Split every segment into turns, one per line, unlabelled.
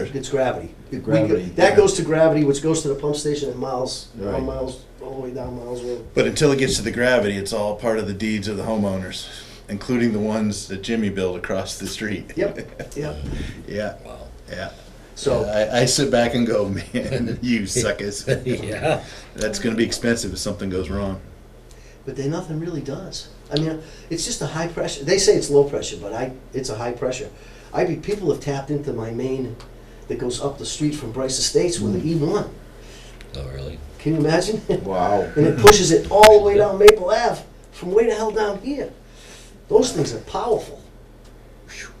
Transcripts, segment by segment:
pressure, it's gravity. We-
Gravity,
That
yeah.
goes to gravity, which goes to the pump station at miles,
Right.
on miles, all the way down miles road.
But until it gets to the gravity, it's all part of the deeds of the homeowners, including the ones that Jimmy built across the street.
Yep, yep,
Yeah,
Wow.
yeah. So
so,
I, I sit back and go, man, you suckers.
yeah.
That's going to be expensive if something goes wrong.
but then nothing really does. I mean, it's just a high pressure, they say it's low pressure, but I, it's a high pressure. I be, people have tapped into my main that goes up the street from Bryce Estates with an E one.
Oh, really?
Can you imagine?
Mm. Wow.
and it pushes it all the way down Maple Ave from way the hell down here. Those things are powerful. Jim-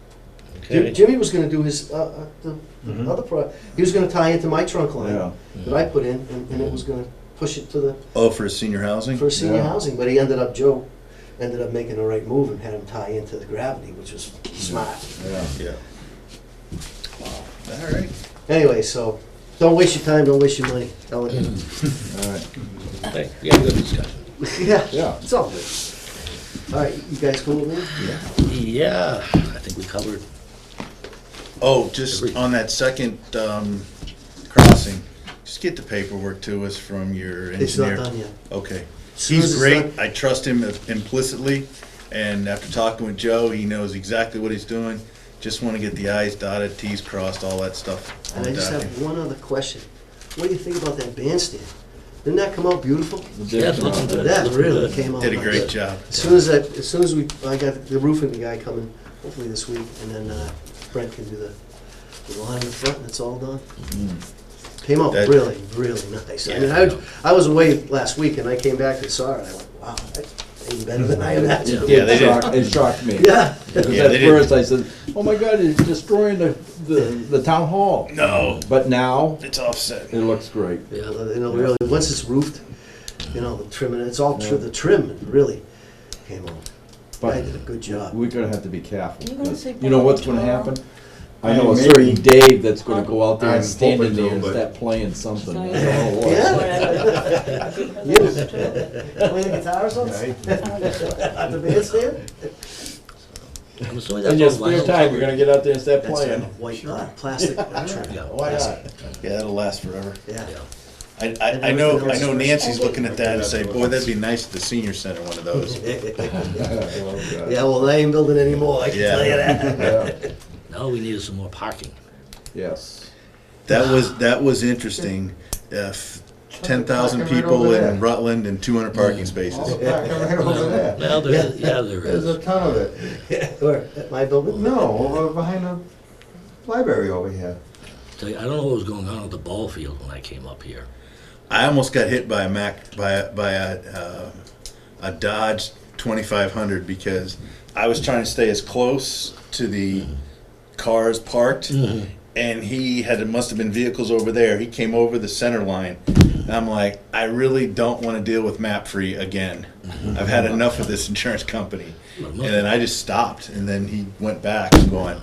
Okay.
Jimmy was going to do his uh, uh, the
Mhm.
other pro. He was going to tie into my trunk line
Yeah.
that I put in, and, and it was going to push it to the
Oh, for senior housing?
for senior
Yeah.
housing. But he ended up Joe ended up making the right move and had him tie into the gravity, which was smart.
Yeah.
Yeah. All right.
Anyway, so don't waste your time. Don't waste your money. Tell it.
All right.
Hey, we had a good discussion.
yeah,
Yeah.
it's all good. All right, you guys cool with me?
Yeah, I think we covered.
Oh, just on that second um, crossing, just get the paperwork to us from your engineer.
It's not done yet.
Okay.
Soon as
He's
it's
great.
done-
I trust him implicitly. And after talking with Joe, he knows exactly what he's doing. Just want to get the i's dotted, t's crossed, all that stuff. on
And I
the
just have
document.
one other question. What do you think about that bandstand? Didn't that come out beautiful?
Yeah, it's looking good.
That
It's looking
really
good.
came out.
Did a
nice.
great job.
As soon as I, as soon as we, I got the roofing guy coming, hopefully this week, and then uh, Brent can do the, the line in the front, and it's all done. Came out
That-
really, really nice. I mean,
Yeah,
I,
I
was-
know.
I was away last week, and I came back and saw it, and I went, wow, that's even better than I imagined.
Yeah, they did.
Shocked- It shocked me.
Yeah,
Because
Yeah, they
at
did.
first I said, oh my God, it's destroying the, the, the town hall.
No,
But now,
it's offset.
it looks great.
you know, really, once it's roofed, you know, the trim, and it's all, tr- the trim really came out. I
But
did a good job.
we're gonna have to be careful.
You gonna
'cause
say
You know what's gonna
tomorrow?
happen? I
I
know a
mean,
certain
maybe.
Dave that's gonna go out there
I'm
and stand in
hoping
there
to,
and
but-
start playing something.
Yeah.
I don't know what.
Yeah.
Play the guitar or something? At the bandstand?
I'm assuming that's
In your
all vinyl.
spare time, you're gonna get out there and start
That's
playing.
a white knot, plastic trim.
Yeah,
Why
that's-
not?
Yeah, that'll last forever.
Yeah.
Yeah.
I, I, I know, I know Nancy's looking at that and say, boy, that'd be nice at the senior center, one of those.
Oh,
Yeah, well, they ain't building anymore, I can tell you that.
Yeah.
Now we needed some more parking.
Yes.
That was, that was interesting. Uh, ten thousand
Parking right
people
over there.
in Rutland and two hundred parking spaces.
Right over there.
Well, there, yeah, there
There's a
is.
ton of it.
Or at my building?
No, over behind the library over here.
Tell you, I don't know what was going on at the ball field when I came up here.
I almost got hit by a Mac by a, by a uh, a Dodge 2500 because I was trying to stay as close to the cars parked,
Mm-hmm.
and he had it must have been vehicles over there. He came over the center line, and I'm like, I really don't want to deal with map free again.
Mm-hmm.
I've had enough of this insurance company, and then I just stopped, and then he went back going.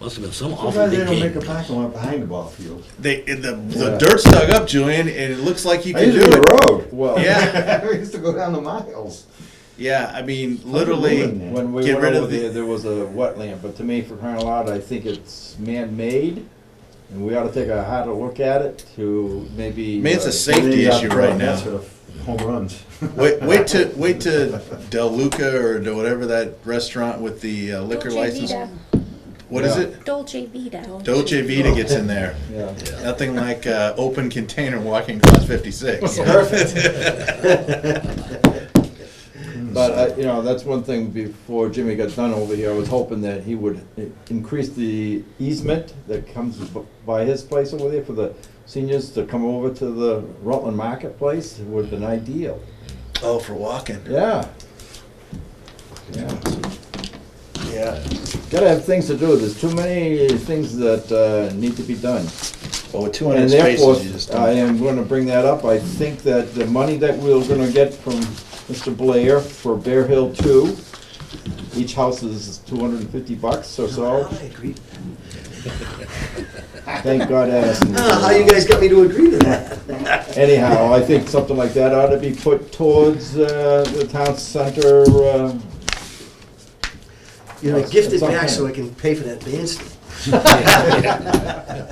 Must have been some awful
Sometimes they
big
don't make
game.
a parking lot behind the ball field.
They the, the
Yeah.
dirt's dug up, Julian, and it looks like you
I
can
used
do
to be the
it.
road.
Well.
Yeah.
I used to go down the miles.
Yeah, I mean,
ruin
literally.
that.
When we
Get
went
rid of
over
the-
there, there was a wetland, but to me, for crying out loud, I think it's man-made, and we ought to take a harder look at it to maybe.
Man, it's a
uh,
sa- Safety
They got
issue right
caught,
now.
That's where the home runs.
Wait, wait to wait to Del Luca or to whatever that restaurant with the uh, liquor
Dolce
license.
Vita.
What is
Yeah.
it?
Dolce Vita.
Dolce Vita gets in there.
Yeah,
Nothing like uh, open container walking across 56. Perfect.
but, I- you know, that's one thing, before Jimmy got done over here, I was hoping that he would i- increase the easement that comes b- by his place over there for the seniors to come over to the Rutland Marketplace, would have been ideal,
oh, for walking.
yeah. Yeah.
Yeah.
Gotta have things to do, there's too many things that, uh, need to be done.
Oh, with 200
And therefore,
spaces, you just
I
don't.
am gonna bring that up, I think that the money that we're gonna get from Mr. Blair for Bear Hill Two, each house is two hundred and fifty bucks or so,
I agree.
thank God Addison. was
Ah, how you
around.
guys got me to agree to that?
Anyhow, I think something like that ought to be put towards, uh, the town center, uh,
You know,
Yes,
gift it
it's on
back so I
hand.
can pay for that bandstand.